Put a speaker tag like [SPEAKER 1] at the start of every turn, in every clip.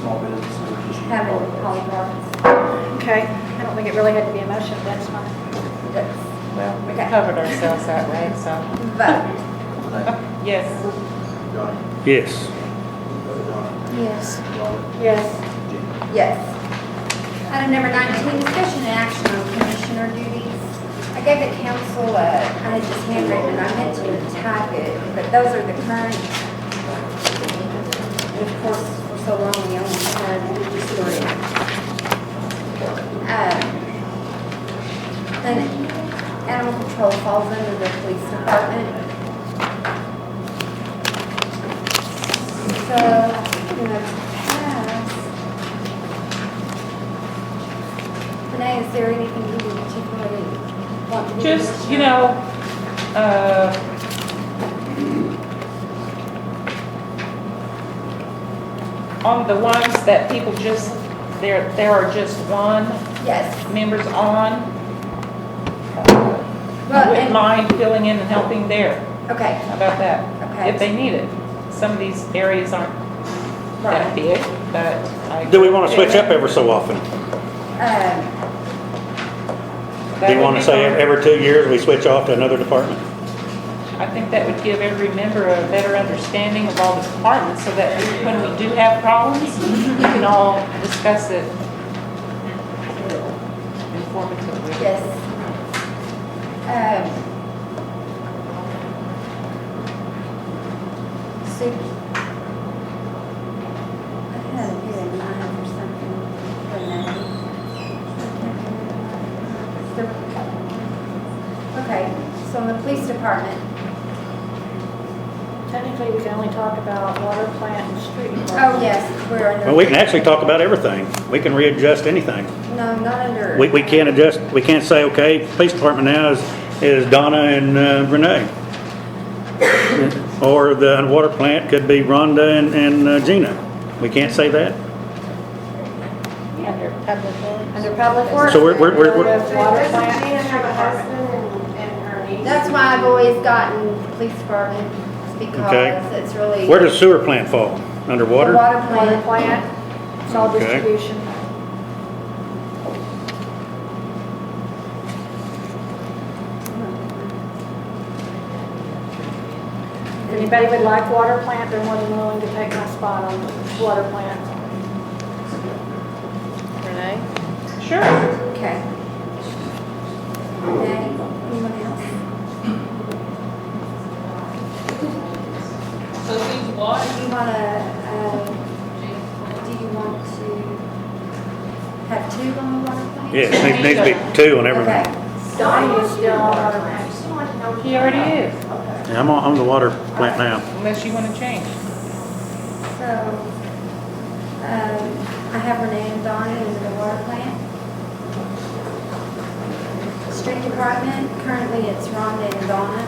[SPEAKER 1] small business or just.
[SPEAKER 2] having polygrams.
[SPEAKER 3] Okay, I don't think it really had to be a motion, but that's fine.
[SPEAKER 2] That's-
[SPEAKER 4] Well, we
[SPEAKER 2] Okay.
[SPEAKER 4] covered ourselves that way, so,
[SPEAKER 2] Vote.
[SPEAKER 4] yes.
[SPEAKER 1] Donnie,
[SPEAKER 5] Yes.
[SPEAKER 1] Donna,
[SPEAKER 3] Yes.
[SPEAKER 1] Robert,
[SPEAKER 3] Yes.
[SPEAKER 1] Jim.
[SPEAKER 2] Yes. Item number 19, discussion and action on commissioner duties. I gave the council, a- I had just handwritten, and I meant to type it, but those are the current. And of course, for so long, we only had three. Um, Then animal control falls under the police department. So, in the past, Renee, is there anything you would particularly want to do?
[SPEAKER 4] Just, you know, uh, on the ones that people just, there, there are just one
[SPEAKER 2] Yes,
[SPEAKER 4] members on, I
[SPEAKER 2] well,
[SPEAKER 4] wouldn't
[SPEAKER 2] and,
[SPEAKER 4] mind filling in and helping there.
[SPEAKER 2] okay,
[SPEAKER 4] How about that? If
[SPEAKER 2] okay.
[SPEAKER 4] they need it. Some of these areas aren't that
[SPEAKER 2] Right.
[SPEAKER 4] big, but I.
[SPEAKER 5] Do we want to switch up every so often?
[SPEAKER 2] Um,
[SPEAKER 5] Do you want to say every two years we switch off to another department?
[SPEAKER 4] I think that would give every member a better understanding of all the departments, so that when we do have problems, we can all discuss it
[SPEAKER 2] Um,
[SPEAKER 4] informatively.
[SPEAKER 2] yes. Um. So. I had a good in mind for something for Renee. Okay, so in the police department,
[SPEAKER 3] Technically, we can only talk about water plant and street.
[SPEAKER 2] oh, yes, we're under.
[SPEAKER 5] Well, we can actually talk about everything. We can readjust anything.
[SPEAKER 2] No, not under.
[SPEAKER 5] We, we can't adjust, we can't say, okay, police department now is, is Donna and uh, Renee. Or the water plant could be Rhonda and, and uh, Gina. We can't say that?
[SPEAKER 3] Under public works.
[SPEAKER 2] Under public works.
[SPEAKER 5] So we're, we're, we're-
[SPEAKER 3] Water
[SPEAKER 5] we're-
[SPEAKER 3] plant
[SPEAKER 6] She
[SPEAKER 3] and
[SPEAKER 6] and
[SPEAKER 3] street
[SPEAKER 6] her
[SPEAKER 3] department.
[SPEAKER 6] husband and- and her niece.
[SPEAKER 2] That's why I've always gotten the police department, is because
[SPEAKER 5] Okay.
[SPEAKER 2] it's really.
[SPEAKER 5] where does sewer plant fall? Underwater?
[SPEAKER 2] The water
[SPEAKER 3] Water
[SPEAKER 2] plant,
[SPEAKER 3] plant, solid
[SPEAKER 5] Okay.
[SPEAKER 3] distribution. If Anybody would like water plant, they're more than willing to take my spot on water plant.
[SPEAKER 4] Renee? Sure.
[SPEAKER 2] okay. Okay, anyone else?
[SPEAKER 7] So who's
[SPEAKER 2] Do
[SPEAKER 7] what?
[SPEAKER 2] you wanna, um, do you want to have two on the water plant?
[SPEAKER 5] Yes, needs, needs to be two on everything.
[SPEAKER 2] Okay,
[SPEAKER 3] Donnie is still on water plant.
[SPEAKER 4] He already is,
[SPEAKER 5] Yeah, I'm on, I'm the water plant now.
[SPEAKER 4] unless you want to change.
[SPEAKER 2] so, um, I have Renee and Donnie in the water plant. Street department, currently it's Rhonda and Donna.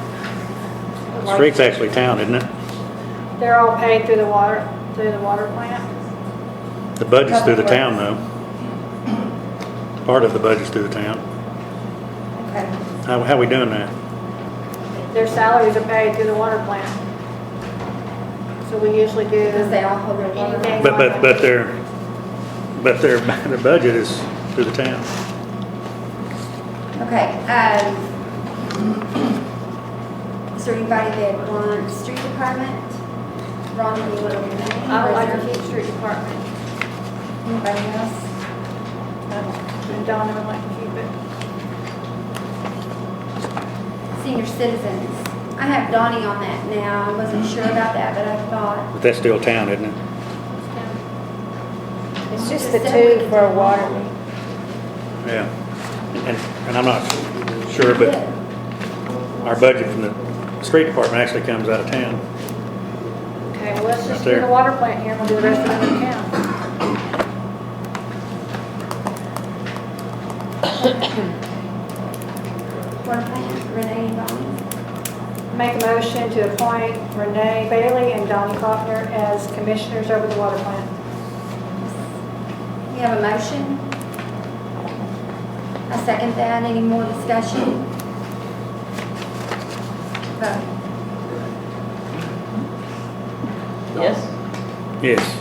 [SPEAKER 5] Street's actually town, isn't it?
[SPEAKER 3] They're all paid through the water, through the water plant.
[SPEAKER 5] The budget's through the town though. Part of the budget's through the town.
[SPEAKER 2] Okay.
[SPEAKER 5] How, how we doing that?
[SPEAKER 3] Their salaries are paid through the water plant. So we usually do.
[SPEAKER 2] Because they all hold their water.
[SPEAKER 3] Anything.
[SPEAKER 5] But, but, but their, but their, their budget is through the town.
[SPEAKER 2] Okay, um, is there anybody that wants street department? Ron, you want to remain?
[SPEAKER 3] Oh, I would like
[SPEAKER 2] Or is
[SPEAKER 3] to keep street department. Uh,
[SPEAKER 2] there Anybody else?
[SPEAKER 3] And Donna would like to keep it.
[SPEAKER 2] Senior citizens. I have Donnie on that now. I wasn't sure about that, but I thought.
[SPEAKER 5] But that's still town, isn't it?
[SPEAKER 2] It's just the two for water.
[SPEAKER 5] Yeah. And, and I'm not sure, but our budget from the street department actually comes out of town.
[SPEAKER 3] Okay, well, let's just
[SPEAKER 5] Right there.
[SPEAKER 3] do the water plant here, and we'll do the rest of it in town.
[SPEAKER 2] Water plant, Renee and Donnie.
[SPEAKER 3] Make a motion to appoint Renee Bailey and Donnie Faulkner as commissioners over the water plant.
[SPEAKER 2] We have a motion. I second that. Any more discussion? Vote.
[SPEAKER 4] Yes.
[SPEAKER 5] Yes.